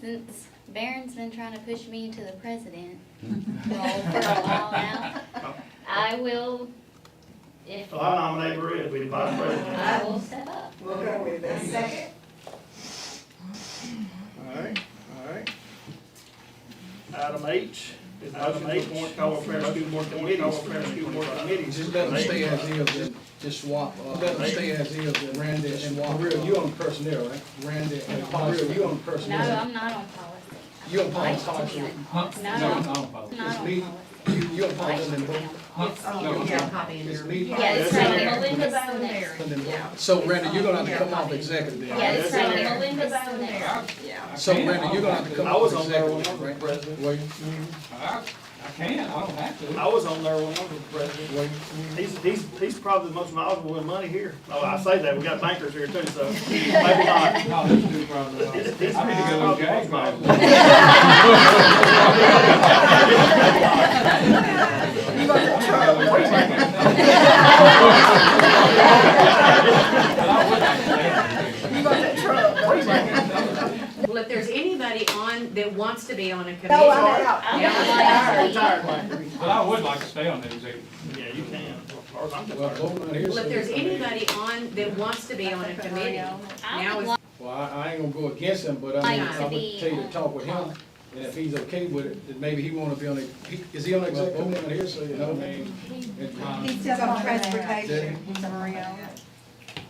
Since Barron's been trying to push me into the president role for a while now, I will, if, So I nominate Brett to be the vice president. I will step up. We'll go with that. Second? All right, all right. Item H, is item H, appoint Caldwell Parish School Board Committee, Caldwell Parish School Board Committee. Just let them stay as is, just swap, uh, let them stay as is, and Randy and Maria, you on personnel, right? Randy and Maria, you on No, personnel. I'm not on policy. You on I'd policy, like to be policy, on- Huh? No. No, no, Bob. Not on Lee, policy. you, you on I'd like policy, to and be then, on- Huh? No, Oh, you got a copy in it's your. Lee. Yeah, it's That's right in there, there. Melinda's the next. and Yeah. then- So Randy, you're gonna have to come off executive Yeah, then, it's That's in right, there. Melinda's the next. Yeah. right? So Randy, you're gonna have to come I was off on there when I executive, was right? president. Were you, I I can, I don't have to. I was on there when I was president. were you? He's, he's, he's probably the most knowledgeable in money here. Oh, I say that, we got bankers here too, so maybe not. No, this dude probably. He's- don't. he's- I need to go with Jack, man. You gonna control the You gonna control the Well, if there's anybody on, that wants to be on a committee. No, I'm out. I'm Yeah, not on policy. Retired banker. But I would like to stay on the executive. Yeah, you can, as far as I'm Well, concerned. vote on here, Well, so- if there's anybody on that wants to be on a committee, I Now would is- like Well, I, I ain't gonna go against him, but I mean, Like I to would be tell you to on- talk with him, and if he's okay with it, then maybe he wanna be on the, he- is he on the executive committee here, so you know, I mean? uh, it's fine. He's just on transportation, he's a Marino.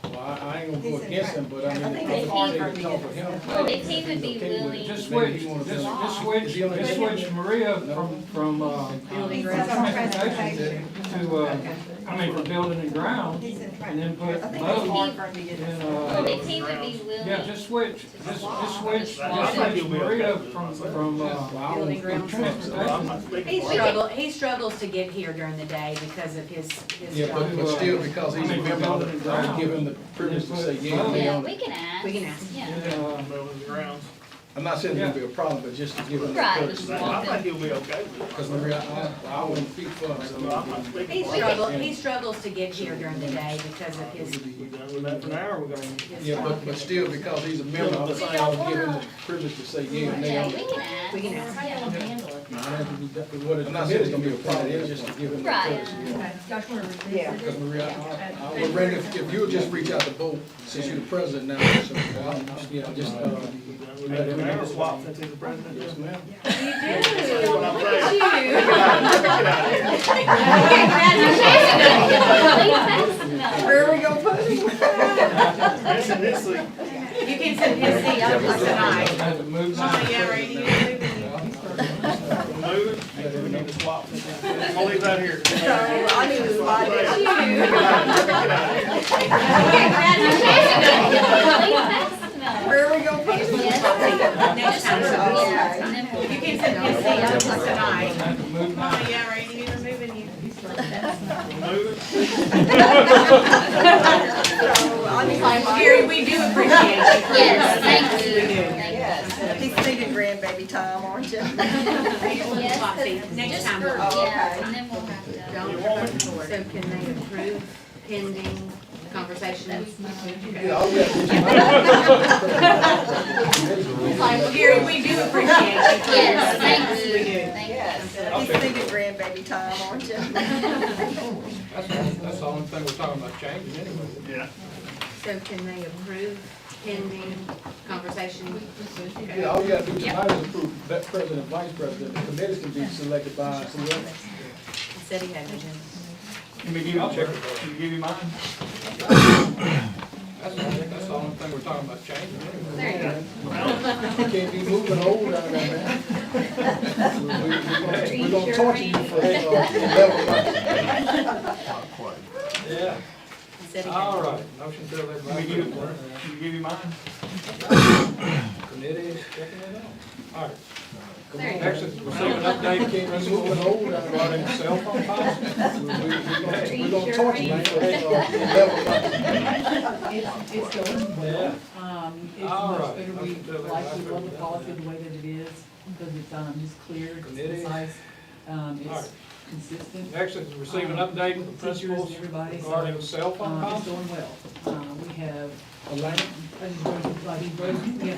Well, I, I ain't gonna go against him, but I mean, I it's would tell hard you to to talk with him. Well, if he would be He's okay with it, willing- Just maybe switch, he wanna just, be on just the- switch, Is he on the just executive? switch Maria from, from, uh, Building He's grounds. just on transportation. to, uh, I mean, from building and ground, He's in and then I put think it's both, hard for him to get and, it. Well, uh, if he would be willing. yeah, just switch, just, just switch, I just think switch he'll be Maria okay. from, from, uh, Building from grounds. Well, I'm transportation. not speaking he for him. struggles, he struggles to get here during the day because of his, his Yeah, but, job. but still, because he's a member, I would I would give him the privilege to say, yeah, me Yeah, on we it. can ask. We can ask. Yeah. And, uh, Moving the grounds. I'm not saying it'll be a problem, but just to give him the Right. privilege. I think he'll be okay Cause with it. Maria, I, I wouldn't speak for him, so. So I'm not He speaking for him. struggles, he struggles to get here during the day because of his, We done with that for now, or we're gonna? his Yeah, job. but, but still, because he's a member, I would say I would give him the privilege to say, yeah, me Yeah, on we it. can ask. We can ask. I'm not saying it's gonna be a problem, it's just to give him the Right. privilege. yeah. Yeah. Because Maria, I, I, well, Randy, if if you would just reach out to both, since you're the president now, so, I'll, yeah, just, uh, We done with that for now, or swap since he's the president? yes, ma'am. That's what I'm saying. You. Get out of here, get out of here. Where are we gonna put him? This is- this is- You can send his seat over tonight. I had to move my- Oh, yeah, right, you- Move, and we need to swap. I'll leave that here. So, I need to slide it. Where are we gonna put him? Next time, Okay. you can send his seat over tonight. I had to move my- Oh, yeah, right, you were moving you. Move. So, I need to. Gary, we do appreciate you. Yes, thank you. We do. Yes, he's thinking grandbaby time, aren't you? Yes. Foxy, next time. we'll- Oh, okay. Yeah, and then we'll have to. Don't promote forward. So can they approve pending conversations? Yeah, I'll get it. Like, Gary, we do appreciate you. Yes, thank you. We do. Thank you. Yes, he's thinking grandbaby time, aren't you? That's, that's the only thing we're talking about changing anyway. Yeah. So can they approve pending conversations? Yeah, all you gotta do tonight is approve that president, and vice president, the committees can be selected by uh, whoever. Said he had an agenda. Let me give you, I'll check it. let me give you mine. That's, that's the only thing we're talking about changing anyway. There you go. Can't be moving old out there, man. We- we- We're gonna torture you for uh, eleven months. Yeah. Said he Oh, had an All right, motion to elect Let me vice give you, let president. me give you mine. Committees, checking it out. All right. There you go. Next is receive an update, can't be moving old out there. Running cell phone policy. We're gonna torture you for uh, eleven months. It's, it's going well. Um, it's All much right. better, we, like, we love the policy the way that it is, because it's, um, it's clear, it's Committee. concise, um, All it's right. consistent. Next is receive an update from principals regarding cell phone Um, it's policy. going well. Uh, we have, Elena? I just, wrote- like, he wrote- we have